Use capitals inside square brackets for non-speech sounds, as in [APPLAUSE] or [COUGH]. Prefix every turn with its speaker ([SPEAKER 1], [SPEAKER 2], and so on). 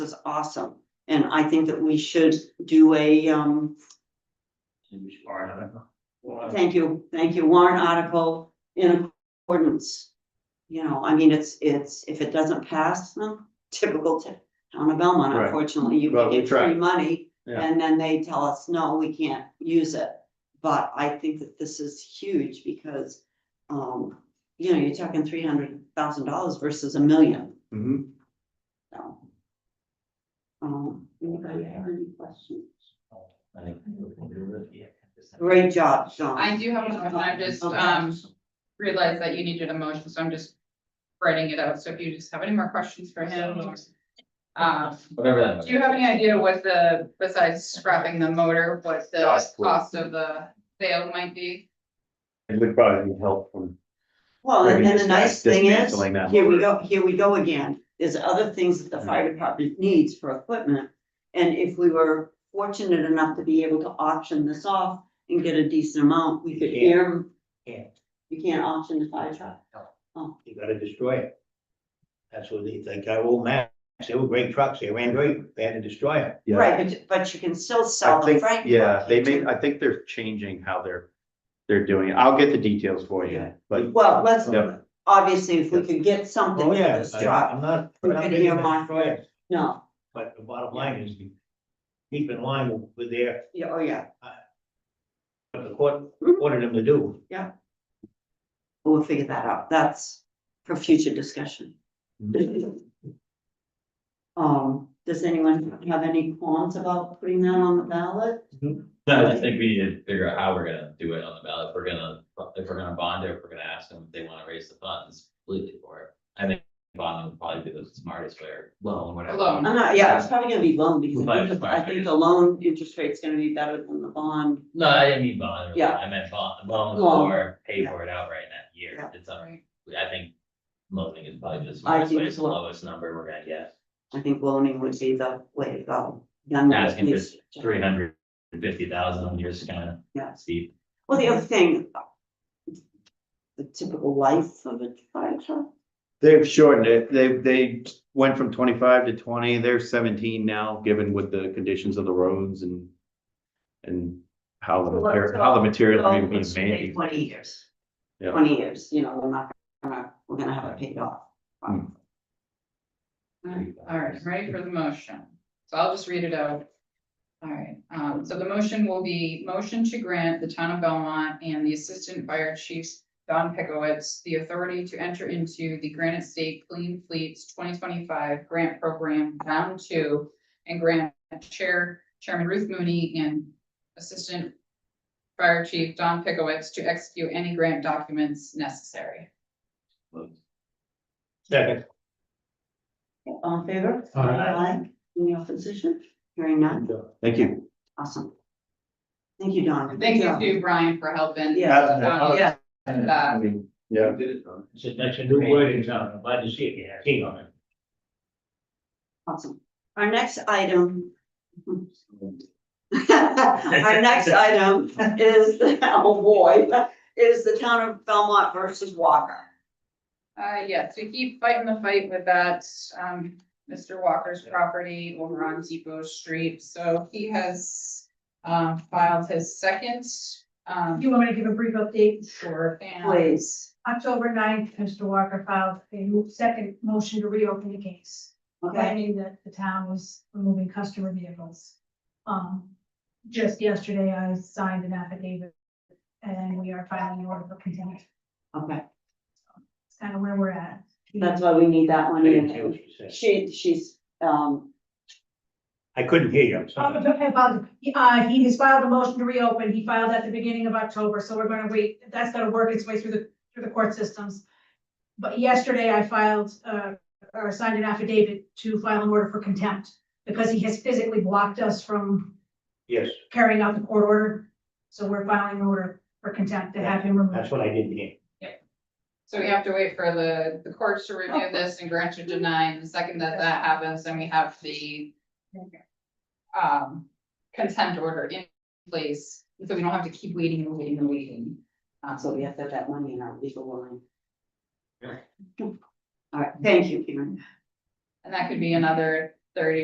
[SPEAKER 1] was awesome. And I think that we should do a, um, thank you, thank you, warrant article in accordance. You know, I mean, it's, it's, if it doesn't pass, hmm, typical to town of Belmont,
[SPEAKER 2] Right.
[SPEAKER 1] unfortunately, you
[SPEAKER 2] Well, we
[SPEAKER 1] get
[SPEAKER 2] tried.
[SPEAKER 1] free money.
[SPEAKER 2] Yeah.
[SPEAKER 1] And then they tell us, no, we can't use it. But I think that this is huge because, um, you know, you're talking three hundred thousand dollars versus a million,
[SPEAKER 2] Mhm.
[SPEAKER 1] so. Um, anybody have any questions? Great job, Sean.
[SPEAKER 3] I do have one, I just, um, realized that you needed a motion, so I'm just writing it out, so if you just have any more questions for him. or- Um,
[SPEAKER 4] Whatever that.
[SPEAKER 3] do you have any idea what the, besides scrapping the motor, what the
[SPEAKER 4] Cost.
[SPEAKER 3] cost of the sale might be?
[SPEAKER 2] It would probably need help from,
[SPEAKER 1] Well, and
[SPEAKER 2] Maybe
[SPEAKER 1] then the
[SPEAKER 2] just
[SPEAKER 1] nice
[SPEAKER 2] dis-
[SPEAKER 1] thing is,
[SPEAKER 2] dismantling that Mm.
[SPEAKER 1] here we go,
[SPEAKER 2] motor.
[SPEAKER 1] here we go again, there's other things that the fire department needs for equipment. And if we were fortunate enough to be able to auction this off and get a decent amount, we could
[SPEAKER 5] You can't.
[SPEAKER 1] air.
[SPEAKER 5] Can't.
[SPEAKER 1] You can't auction the fire truck,
[SPEAKER 5] you gotta destroy it. That's what they think, I old Max, they were great trucks, they ran great, they had to destroy them.
[SPEAKER 2] yeah,
[SPEAKER 1] right, but, but you can still sell
[SPEAKER 2] I
[SPEAKER 1] the
[SPEAKER 2] think,
[SPEAKER 1] Frank.
[SPEAKER 2] yeah,
[SPEAKER 1] truck
[SPEAKER 2] they
[SPEAKER 1] here,
[SPEAKER 2] may, I think they're changing how they're, they're doing it. I'll get the details for you,
[SPEAKER 5] Yeah.
[SPEAKER 2] but
[SPEAKER 1] too. Well, let's,
[SPEAKER 2] Yeah.
[SPEAKER 1] obviously, if we could get something
[SPEAKER 5] Oh,
[SPEAKER 1] for
[SPEAKER 5] yeah,
[SPEAKER 1] this
[SPEAKER 5] I-
[SPEAKER 1] truck,
[SPEAKER 5] I'm not,
[SPEAKER 1] We
[SPEAKER 5] I'm not
[SPEAKER 1] could
[SPEAKER 5] making
[SPEAKER 1] hear my-
[SPEAKER 5] them destroy it,
[SPEAKER 1] no,
[SPEAKER 5] but the bottom line is keep in line with their,
[SPEAKER 1] yeah, oh, yeah.
[SPEAKER 5] what the court
[SPEAKER 1] Mhm.
[SPEAKER 5] ordered them to do.
[SPEAKER 1] We'll figure that out. That's for future discussion. Um, does anyone have any qualms about putting that on the ballot?
[SPEAKER 4] No, I just think we need to figure out how we're gonna do it on the ballot, if we're gonna, if we're gonna bond it, if we're gonna ask them if they wanna raise the funds completely for it. I think bond would probably be the smartest way, or loan, whatever.
[SPEAKER 3] Loan.
[SPEAKER 1] I'm not, yeah, it's probably gonna be loan because I think, the- I
[SPEAKER 4] Right.
[SPEAKER 1] think the loan interest rate's gonna be better than the bond.
[SPEAKER 4] No, I didn't mean bond,
[SPEAKER 1] Yeah.
[SPEAKER 4] I meant bond, loan
[SPEAKER 1] Loan.
[SPEAKER 4] or pay
[SPEAKER 1] Yeah.
[SPEAKER 4] for it outright that
[SPEAKER 1] Yeah.
[SPEAKER 4] year, it's, all right. I think loaning is probably the
[SPEAKER 1] I
[SPEAKER 4] smartest
[SPEAKER 1] think
[SPEAKER 4] way, it's the
[SPEAKER 1] loan.
[SPEAKER 4] lowest number we're gonna get.
[SPEAKER 1] I think loaning would be the way to go. Young at
[SPEAKER 4] Asking for
[SPEAKER 1] least.
[SPEAKER 4] three hundred and fifty thousand, you're just kinda
[SPEAKER 1] Yeah.
[SPEAKER 4] steep.
[SPEAKER 1] Well, the other thing. The typical life of a fire truck.
[SPEAKER 2] they've shortened it. They, they went from twenty-five to twenty, they're seventeen now, given with the conditions of the roads and and how the, mater- how the material
[SPEAKER 1] So,
[SPEAKER 2] is being
[SPEAKER 1] it's
[SPEAKER 2] made.
[SPEAKER 1] Twenty years.
[SPEAKER 2] Yeah.
[SPEAKER 1] Twenty years, you know, we're not gonna, we're gonna have it paid off.
[SPEAKER 2] Hmm.
[SPEAKER 3] All right, I'm ready for the motion, so I'll just read it out. All right, um, so the motion will be motion to grant the town of Belmont and the Assistant Fire Chiefs Don Pickowitz the authority to enter into the Granite State Clean Fleets twenty twenty-five grant program bound to and grant Chair Chairman Ruth Mooney and Assistant Fire Chief Don Pickowitz to execute any grant documents necessary.
[SPEAKER 5] Second,
[SPEAKER 1] All in favor?
[SPEAKER 5] Aye.
[SPEAKER 1] Any opposition? Hearing none,
[SPEAKER 2] Thank you.
[SPEAKER 1] awesome. Thank you, Don. Good
[SPEAKER 3] Thank you
[SPEAKER 1] job.
[SPEAKER 3] to Brian for helping.
[SPEAKER 1] Yeah.
[SPEAKER 3] Don,
[SPEAKER 1] Yeah,
[SPEAKER 3] and, uh,
[SPEAKER 2] Yeah.
[SPEAKER 5] it's a- that's a new word in town, I'm glad to see it, yeah, keen on it.
[SPEAKER 1] awesome. Our next item. [LAUGHS] Our next item is, [LAUGHS] oh boy, is the town of Belmont versus Walker.
[SPEAKER 3] Uh, yeah, so keep fighting the fight with that, um, Mr. Walker's property over on Depot Street, so he has. Um, filed his second, um,
[SPEAKER 6] You want me to give a brief update?
[SPEAKER 3] sure, fan.
[SPEAKER 1] Please.
[SPEAKER 6] October 9th, Mr. Walker filed a mo- second motion to reopen the case,
[SPEAKER 1] Okay,
[SPEAKER 6] finding that the town was removing customer vehicles. Um, just yesterday, I signed an affidavit, and we are filing the order for contempt.
[SPEAKER 1] okay.
[SPEAKER 6] It's kind of where we're at.
[SPEAKER 1] That's why we need that
[SPEAKER 5] I
[SPEAKER 1] one
[SPEAKER 5] didn't hear
[SPEAKER 1] in.
[SPEAKER 5] what you said.
[SPEAKER 1] She, she's, um,
[SPEAKER 5] I couldn't hear you, I'm
[SPEAKER 6] Oh,
[SPEAKER 5] sorry.
[SPEAKER 6] okay, about- Uh, he has filed a motion to reopen. He filed at the beginning of October, so we're gonna wait. That's gonna work its way through the, through the court systems. But yesterday I filed, uh, or signed an affidavit to file an order for contempt because he has physically blocked us from
[SPEAKER 5] Yes,
[SPEAKER 6] carrying out the court order. So we're filing an order for contempt to have him
[SPEAKER 5] that's
[SPEAKER 6] removed.
[SPEAKER 5] what I didn't hear.
[SPEAKER 3] So we have to wait for the, the courts to review this and grant or deny, and the second that that happens, then we have the. Um, consent order in place, so we don't have to keep waiting and waiting and waiting. Uh,
[SPEAKER 1] so we have to have that one in our legal line. All right, thank you, Karen.
[SPEAKER 3] And that could be another thirty